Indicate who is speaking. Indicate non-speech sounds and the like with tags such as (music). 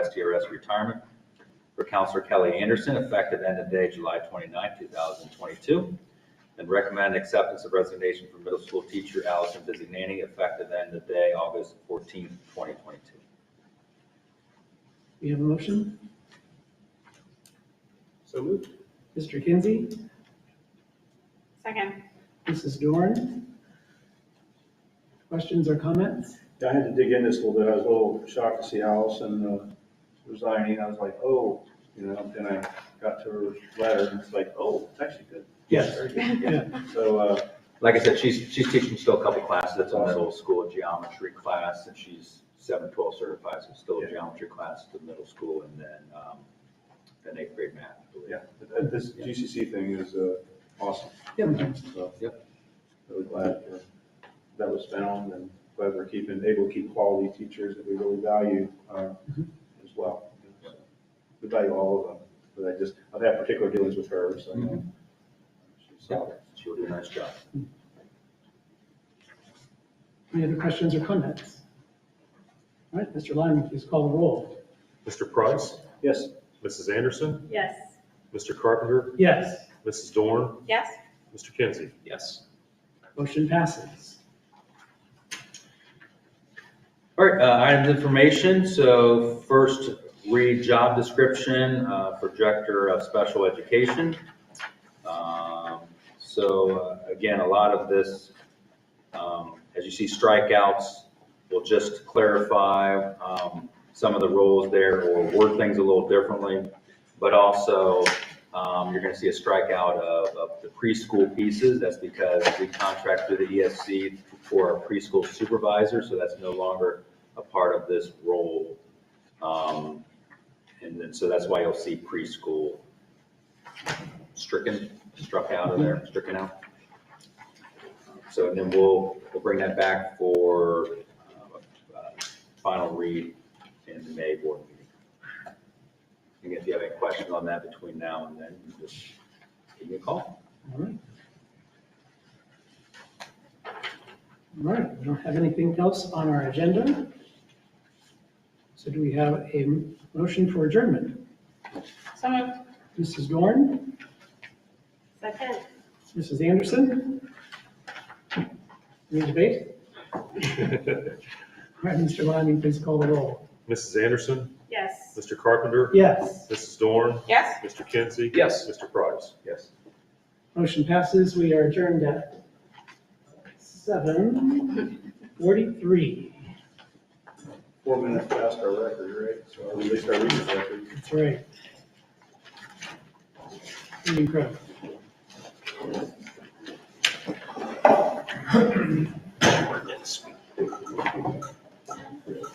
Speaker 1: STRS retirement for Counselor Kelly Anderson, effective end of day July 29, 2022. And recommend acceptance of resignation for middle school teacher Allison Bizignani, effective end of day August 14, 2022.
Speaker 2: We have a motion.
Speaker 3: So moved.
Speaker 2: Mr. Kinsey,
Speaker 4: Second.
Speaker 2: Mrs. Dorn. Questions or comments?
Speaker 3: Yeah, I had to dig in this a little bit. I was a little shocked to see Allison uh, resigning. I was like, oh, you know, then I got to her letter and it's like, oh, it's actually good.
Speaker 2: Yes.
Speaker 3: Very good. So, uh,
Speaker 1: Like I said, she's, she's teaching still a couple classes. It's a middle school geometry class and she's 712 certified, so it's still a
Speaker 3: Yeah.
Speaker 1: geometry class to middle school and then, um, then eighth grade math. I believe.
Speaker 3: yeah, th- this GCC thing is uh, awesome.
Speaker 2: Yep.
Speaker 3: So, really glad uh, that was found and glad we're keeping, able to keep quality teachers that we really value uh,
Speaker 2: Mm-hmm.
Speaker 3: as well.
Speaker 1: Yep.
Speaker 3: We value all of them, but I just, I've had particular dealings with her, so. I know
Speaker 2: Mm-hmm.
Speaker 3: she's solid.
Speaker 1: She'll do a nice job.
Speaker 2: Any other questions or comments? All right, Mr. Lyman, please call the roll.
Speaker 5: Mr. Price,
Speaker 3: Yes,
Speaker 5: Mrs. Anderson,
Speaker 4: Yes.
Speaker 5: Mr. Carpenter,
Speaker 2: Yes,
Speaker 5: Mrs. Dorn,
Speaker 4: Yes.
Speaker 5: Mr. Kinsey. (laughs)
Speaker 1: Yes.
Speaker 2: motion passes.
Speaker 1: All right, uh, items of information. So first, read job description uh, for Director of Special Education. Um, So uh, again, a lot of this, um, as you see strikeouts, will just clarify um, some of the roles there or word things a little differently. But also, um, you're going to see a strikeout of of the preschool pieces. That's because we contract through the ESC for our preschool supervisor, so that's no longer a part of this role. Um, And then, so that's why you'll see preschool stricken, struck out of there, stricken out. So and then we'll, we'll bring that back for uh, uh, final read in the May board meeting. And if you have any questions on that between now and then, you just give me a call.
Speaker 2: All right. All right, we don't have anything else on our agenda. So do we have a motion for adjournment?
Speaker 4: So moved.
Speaker 2: Mrs. Dorn,
Speaker 4: Second.
Speaker 2: Mrs. Anderson? Any debate? All right, Mr. Lyman, please call the roll.
Speaker 5: Mrs. Anderson,
Speaker 4: Yes.
Speaker 5: Mr. Carpenter,
Speaker 2: Yes,
Speaker 5: Mrs. Dorn,
Speaker 4: Yes.
Speaker 5: Mr. Kinsey.
Speaker 1: Yes.
Speaker 5: Mr. Price.
Speaker 3: yes.
Speaker 2: motion passes. We are adjourned at 7:43.
Speaker 3: four minutes past our record, right? So or at least our recent record.
Speaker 2: That's right. Incredible.